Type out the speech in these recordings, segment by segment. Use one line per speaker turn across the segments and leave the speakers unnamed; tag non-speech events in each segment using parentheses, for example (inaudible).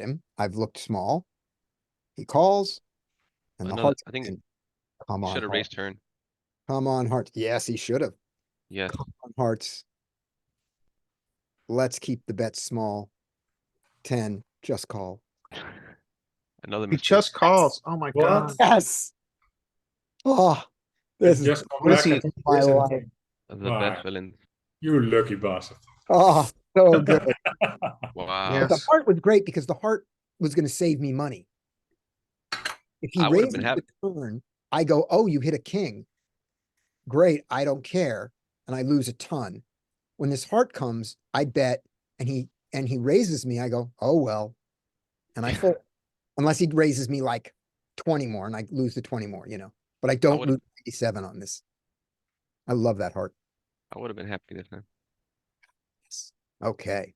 him. I've looked small. He calls. And the
Another-
hearts.
I think
in. Come on,
Should have
heart.
raised turn.
come on, hearts. Yes, he should have.
Yes.
on hearts. Let's keep the bet small. Ten, just call.
Another
He
mistake.
just calls. Oh my god.
Yes. Oh, this is
Just come back
pussy
and
in my
listen.
life.
The
Alright.
bad villain.
You lucky bastard.
Oh,
(laughs)
so good.
Wow.
But the
Yes.
heart was great because the heart was gonna save me money. If he
I would've
raises
been
the turn, I go, oh, you hit a king. Great, I don't care, and I lose a ton. When this heart comes, I bet, and he, and he raises me, I go, oh, well. And I fold, unless he raises me like twenty more and I lose the twenty more, you know, but I don't
would've-
lose ninety-seven on this. I love that heart.
I would have been happy this time.
Okay,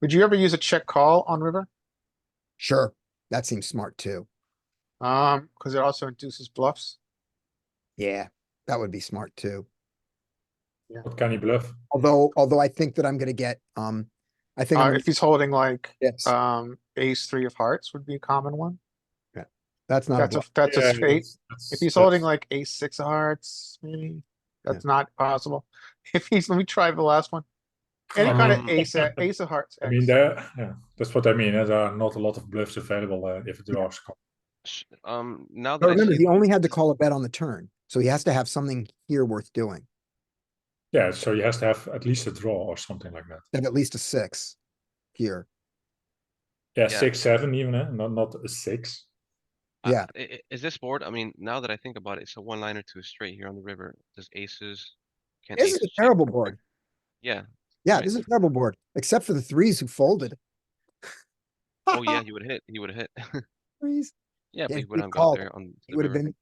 Would you ever use a check call on river?
sure, that seems smart too.
Um, because it also induces bluffs.
Yeah, that would be smart too.
What can he bluff?
Although, although I think that I'm gonna get, um, I think, I'm
Uh,
gonna
if he's holding like,
get chips.
um, ace three of hearts would be a common one.
that's not, a
That's a,
bluff.
that's
Yeah,
a straight.
that's- that's-
If he's holding like
that's-
ace six of hearts, maybe, that's not possible. (laughs) If he's, let me try the last one. Any kind of
Um,
ace, uh, ace of hearts.
I mean,
X.
there, yeah, that's what I mean. eh, There are not a lot of bluffs available uh, if it draws. call.
Sh- Um, now
But
that I
remember,
see
he only had to call a bet on the turn, so he has to have something here worth doing,
Yeah, so he has to have at least a draw or something like that.
and at least a six here.
Yeah,
Yeah.
six, seven, even, eh? not not a six.
I-
Yeah.
i- i- Is this board, I mean, now that I think about it, it's a one liner to a straight here on the river. Does aces? can
This is
aces
a
check?
terrible board.
Yeah.
Yeah,
Right.
this is a terrible board, except for the threes who folded.
Oh, yeah, he would hit. He would have hit.
(laughs)
(laughs)
Threes,
Yeah,
Yeah,
but he
if
would
he
have
called,
got there on.
it
the
would have
river.
been.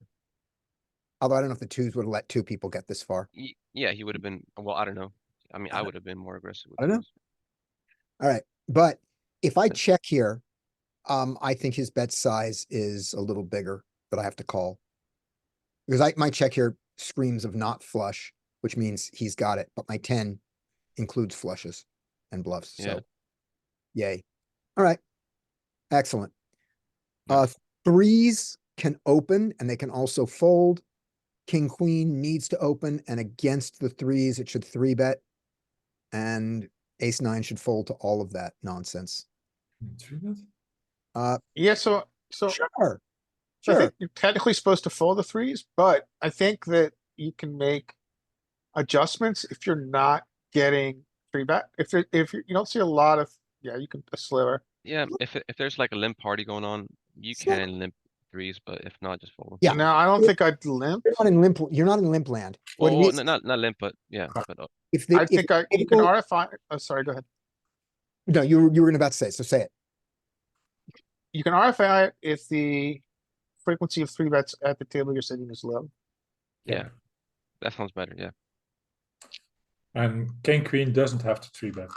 Although I don't know if the twos would have let two people get this far.
Y- Yeah, he would have been, well, I don't know. I mean, I
don't-
would have been more aggressive. with
I don't know.
those.
But if I
Yeah.
check here, um, I think his bet size is a little bigger that I have to call. Because I, my check here screams of not flush, which means he's got it, but my ten includes flushes and bluffs,
Yeah.
so. Yay. All right. Excellent.
Yeah.
Uh, threes can open and they can also fold. King, queen needs to open and against the threes, it should three bet. And ace nine should fold to all of that nonsense.
Three bet?
Uh,
Yeah, so, so
sure.
I
Sure.
think you're technically supposed to fold the threes, but I think that you can make adjustments if you're not getting three bet. If it, if you you don't see a lot of, yeah, you can a sliver.
Yeah, if, it- if there's like a limp party going on, you
Sure.
can limp threes, but if not, just fold. 'em.
Yeah.
Now, I don't
Yeah.
think I'd limp.
You're not in limp, you're not in limp land. What it
Oh,
is-
no, not, not limp, but yeah, but uh,
If,
I
the- if,
think I, you can
people-
RFI, oh, sorry, go ahead.
no, you, were- you were about to say, it, so say it.
You can RFI it if the frequency of three bets at the table you're sitting is low.
yeah. That sounds better, yeah.
And king queen doesn't have to three bet.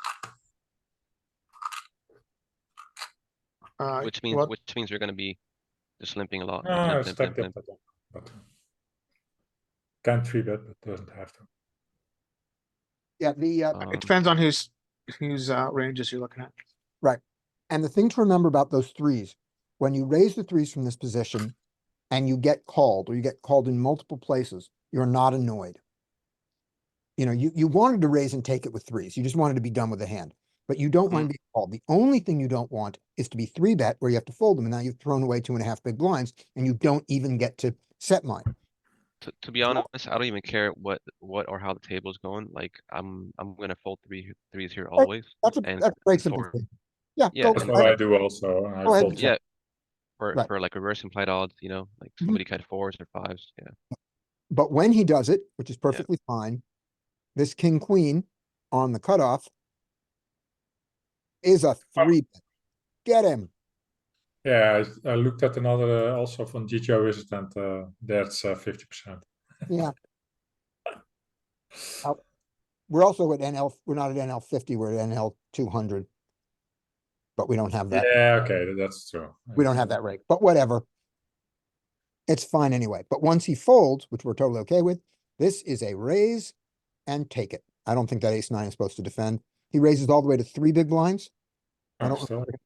Uh,
Which means,
well,
which means you're gonna be just limping a lot. like
Ah,
limp, limp,
stacked
limp,
up that one. But, uh, Can three bet, but doesn't have to.
Yeah, the, uh,
limp.
It
Um,
depends on whose, whose, uh, ranges you're looking at.
And the thing to remember about those threes, when you raise the threes from this position and you get called or you get called in multiple places, you're not annoyed. You know, you, you wanted to raise and take it with threes. You just wanted to be done with the hand, but you don't
Mm.
mind being called. The only thing you don't want is to be three bet where you have to fold them. And now you've thrown away two and a half big blinds and you don't even get to set mine.
To, to be honest, I don't even care what, what or how the table's going, like, I'm, I'm gonna fold three, threes here always.
That's a,
and-
that's a very
and
simple
four.
thing. Yeah.
Yeah,
go
it's
That's
for
what
it.
I do also. and I
Go ahead.
fold
Yeah. For,
Right.
for like reverse implied odds, you know, like
Mhm.
somebody cut fours or fives, yeah.
But when he does it, which is perfectly fine, this king, queen on the cutoff is a three. bet. Get him.
Yeah, I, I looked at another uh, also from GTO Wizard, and uh, that's uh, 50%.
Yeah. Uh, We're also at NL, we're not at NL fifty, we're at NL two hundred. But we don't have that,
Yeah, okay, tha- that's true.
we don't have that rate, but whatever. It's fine anyway, but once he folds, which we're totally okay with, this is a raise and take it. I don't think that ace nine is supposed to defend. He raises all the way to three big blinds. I
Oh,
don't-
still.